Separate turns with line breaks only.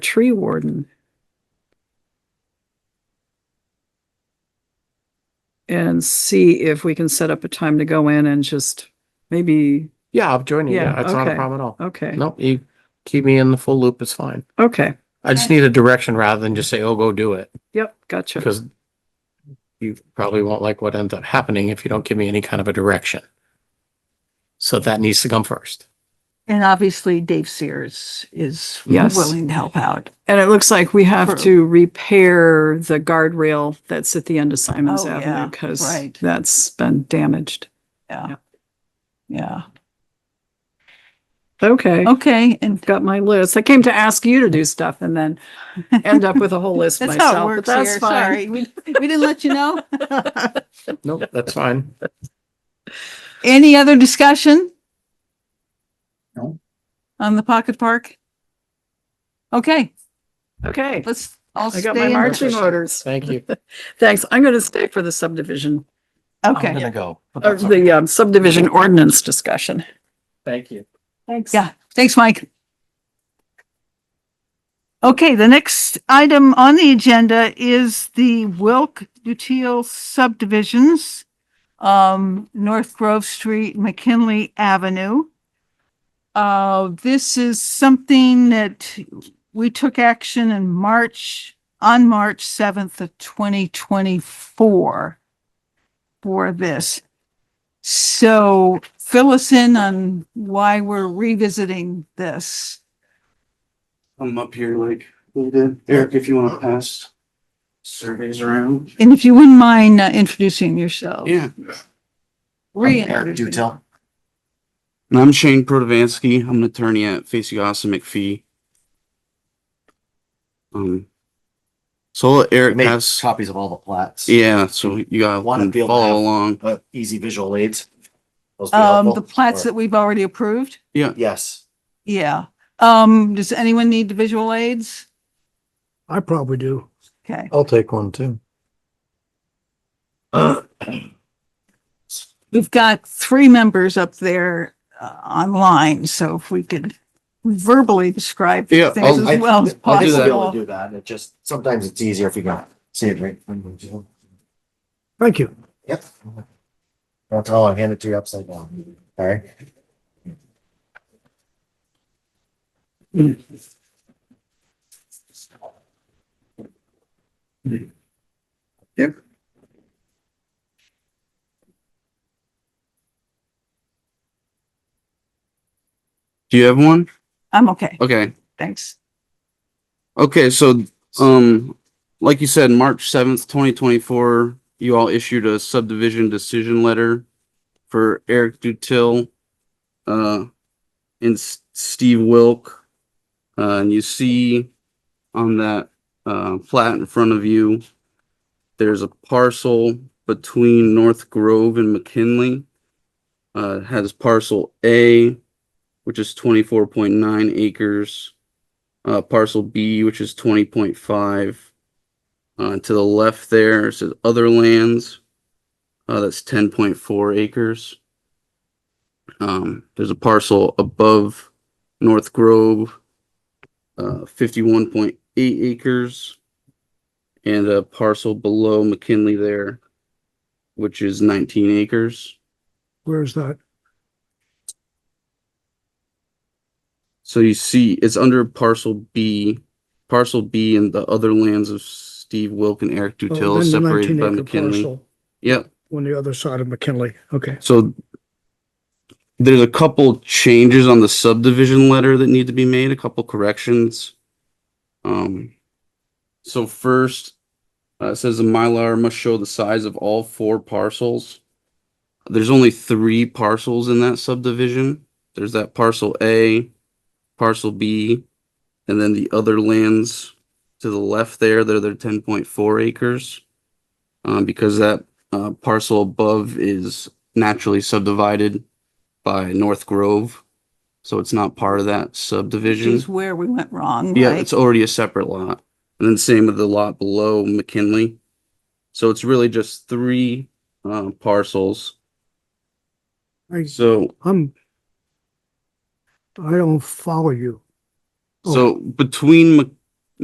tree warden. And see if we can set up a time to go in and just maybe,
Yeah, I'll join you.
Yeah,
Yeah, it's not
okay.
a problem at all.
okay,
No, you keep me in the full loop. It's fine.
okay,
I just need a direction rather than just say, oh, go do it.
yep, gotcha.
Because you probably won't like what ends up happening if you don't give me any kind of a direction. So that needs to come first.
And obviously Dave Sears is
Yes.
willing to help out.
And it looks like we have
True.
to repair the guardrail that's at the end of Simons
Oh,
Avenue
yeah,
because
right.
that's been damaged. Yeah.
Yeah. Yeah.
Okay,
Okay. And
got my list. I came to ask you to do stuff and then end up with a whole list
that's how it
myself, but
works
that's
here.
fine.
Sorry. We, we didn't let you know.
Nope, that's fine.
Any other discussion?
No.
On the pocket park? Okay,
Okay,
let's all
I got my
stay in.
marching orders.
Thank you.
Thanks. I'm going to stay for the subdivision. Oh,
I'm
Okay.
gonna go. but
Or
that's okay.
the um, subdivision ordinance discussion.
Thank you.
Thanks.
Yeah. Thanks, Mike. Okay, the next item on the agenda is the Wilk Dutil subdivisions. Um, North Grove Street, McKinley Avenue. Uh, this is something that we took action in March, on March seventh of twenty twenty-four for this. So fill us in on why we're revisiting this.
I'm up here like we did. Eric, if you want to pass surveys around.
And if you wouldn't mind uh, introducing yourself.
Yeah.
Reintroducing.
tell. And I'm Shane Protovansky. I'm an attorney at Facey Austin McPhee. Um, so I'll let Eric
Make
pass.
copies of all the plats.
Yeah, so you got
Wanna
to
be able to have-
follow along.
Uh, easy visual aids. Those be
Um,
helpful.
the plats
Or-
that we've already approved.
Yes,
Yeah. Um, does anyone need the visual aids?
I probably do.
Okay.
I'll take one too.
We've got three members up there uh, online, so if we could verbally describe
Yeah,
things
I'll-
as
oh, I-
well as
I do be able to
possible.
do that. It just, sometimes it's easier if you can see it right.
Thank you.
Yep. That's all. I hand it to you upside down. All right.
Do you have one?
I'm okay.
Okay.
Thanks.
Okay, so, um, like you said, March seventh, twenty twenty-four, you all issued a subdivision decision letter for Eric Dutil, uh, and S- Steve Wilk. Uh, and you see on that, uh, plat in front of you, there's a parcel between North Grove and McKinley. Uh, it has parcel A, which is twenty-four point nine acres uh, parcel B, which is twenty point five. Uh, to the left there, it says other lands. Uh, that's ten point four acres. Um, there's a parcel above North Grove, uh, fifty-one point eight acres. And a parcel below McKinley there, which is nineteen acres.
Where's that? Oh,
So you see, it's under parcel B. Parcel B and the other lands of Steve Wilk and Eric
Oh,
Dutil
then
is
the
separated by
19 acre
McKinley.
parcel
Yep.
On the other side of McKinley. Okay.
So there's a couple changes on the subdivision letter that need to be made, a couple corrections. Um, so first, uh, it says the Mylar must show the size of all four parcels. There's only three parcels in that subdivision. There's that parcel A, parcel B, and then the other lands to the left there, they're their ten point four acres. Um, because that, uh, parcel above is naturally subdivided by North Grove. So it's not part of that
Which
subdivision.
is where we went wrong,
Yeah,
right?
it's already a separate lot. And then same with the lot below McKinley. So it's really just three uh, parcels.
I,
So
I'm. I don't follow you.
so between Mc-